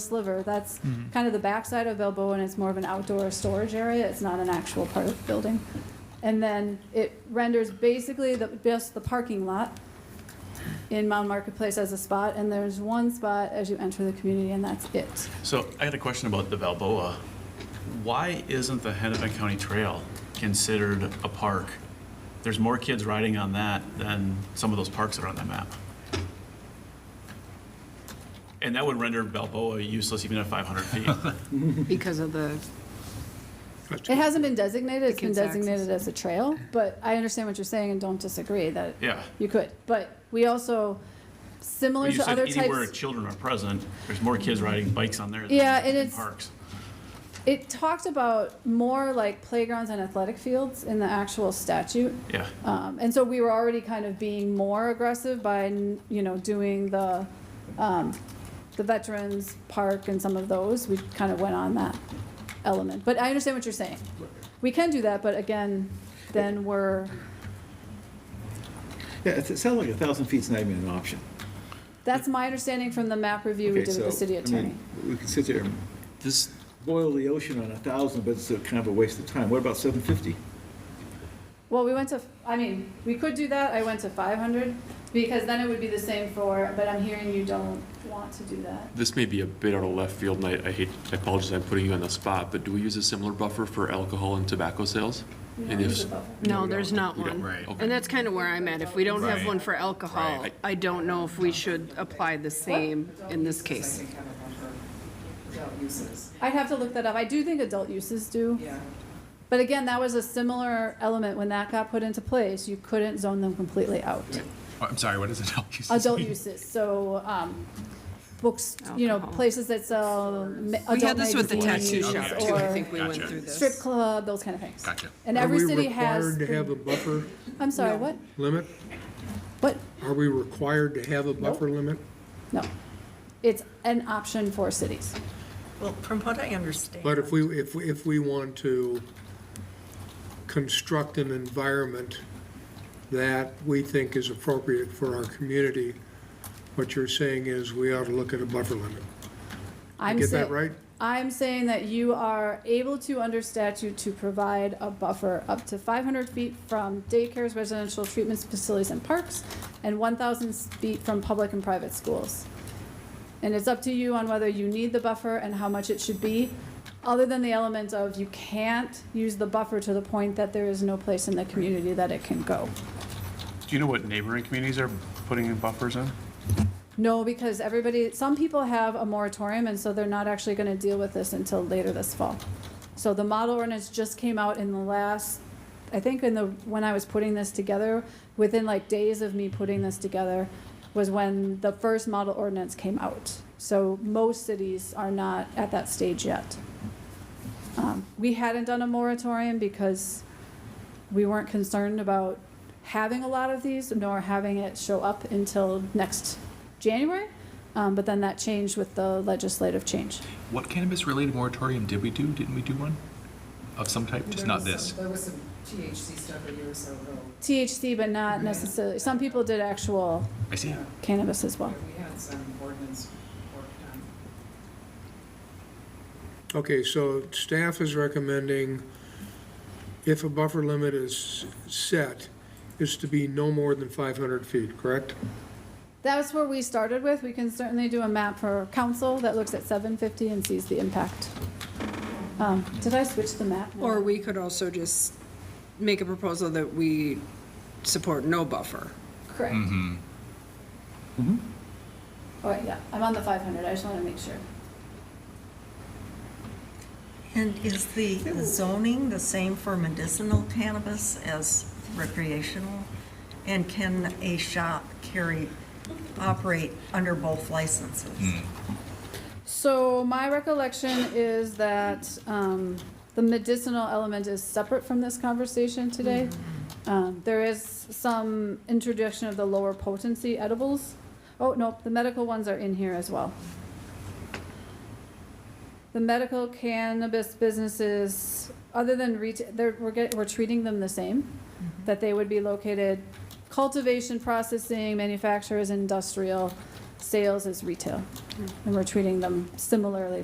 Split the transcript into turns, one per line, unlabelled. sliver. That's
Mm-hmm.
kind of the backside of Balboa, and it's more of an outdoor storage area. It's not an actual part of the building. And then it renders basically the, just the parking lot in Mound Marketplace as a spot, and there's one spot as you enter the community, and that's it.
So I had a question about the Balboa. Why isn't the Hennepin County Trail considered a park? There's more kids riding on that than some of those parks that are on that map. And that would render Balboa useless even at 500 feet.
Because of the,
It hasn't been designated. It's been
kids' access.
designated as a trail, but I understand what you're saying and don't disagree that
Yeah.
you could. But we also,
But
similar
You
to
said
other types.
anywhere children are present, there's more kids riding bikes on there than
Yeah, and
in
it's-
parks.
It talked about more like playgrounds and athletic fields in the actual statute.
Yeah,
Um, and so we were already kind of being more aggressive by, you know, doing the, um, the veterans park and some of those. We kind of went on that element. But I understand what you're saying. We can do that, but again, then we're,
Yeah, it's- it sounds like a thousand feet's not even an option.
that's my understanding from the map review we
Okay,
did with
so,
the city
I mean,
attorney.
We could sit there and
This,
boil the ocean on a thousand, but it's a kind of a waste of time. What about seven fifty?
Well, we went to, I mean, we could do that, I went to five hundred, because then it would be the same for, but I'm hearing you don't want to do that.
this may be a bit out of left field, and I, I hate, I apologize, I'm putting you on the spot, but do we use a similar buffer for alcohol and tobacco sales?
We don't
And
use
if,
a buffer.
no, there's not
we don't-
one.
right.
And that's kind of where I'm at. If we don't have one for alcohol,
Right.
I don't know if we should apply the same in this case.
I'd have to look that up, I do think adult uses do. But again, that was a similar element, when that got put into place, you couldn't zone them completely out.
Oh, I'm sorry, what is it?
Adult uses, so, um, books, you know,
Alcohol.
places that sell ma-
We
adult
had this with the tattoo
magazines
shop
okay.
too. I think
or
we went
Gotcha.
through this.
strip club, those kind of things.
Gotcha.
And every city
Are we
has,
required to have a buffer
I'm sorry, what,
limit?
what?
Are we required to have a buffer limit?
No. It's an option for cities.
Well, from what I understand.
But if we, if, we- if we want to construct an environment that we think is appropriate for our community, what you're saying is we ought to look at a buffer limit.
I'm
get that
say-
right?
I'm saying that you are able to, under statute, to provide a buffer up to 500 feet from daycares, residential treatment facilities, and parks, and 1,000 feet from public and private schools. And it's up to you on whether you need the buffer and how much it should be, other than the element of you can't use the buffer to the point that there is no place in the community that it can go.
Do you know what neighboring communities are putting in buffers in?
No, because everybody, some people have a moratorium, and so they're not actually gonna deal with this until later this fall. So the model ordinance just came out in the last, I think in the, when I was putting this together, within like days of me putting this together, was when the first model ordinance came out. So most cities are not at that stage yet. Um, We hadn't done a moratorium because we weren't concerned about having a lot of these, nor having it show up until next January. Um, but then that changed with the legislative change.
What cannabis-related moratorium did we do? Didn't we do one? Of some type, just not this?
There was some THC stuff a year or so ago.
THC, but not necessarily, some people did actual
I see.
cannabis as well.
but We had some ordinance worked on.
Okay, so staff is recommending if a buffer limit is set, it's to be no more than 500 feet, correct?
That's where we started with. We can certainly do a map for council that looks at seven fifty and sees the impact. Um, did I switch the map? now?
Or we could also just make a proposal that we support no buffer.
Correct.
Mm-hmm.
All right, yeah, I'm on the five hundred. I just want to make sure.
And is the zoning the same for medicinal cannabis as recreational? And can a shop carry, operate under both licenses?
So my recollection is that um, the medicinal element is separate from this conversation today. Um, There is some introduction of the lower potency edibles. Oh, no, the medical ones are in here as well. The medical cannabis businesses, other than retail, they're, we're get we're treating them the same, that they would be located cultivation, processing, manufacturers, industrial, sales is retail. And we're treating them similarly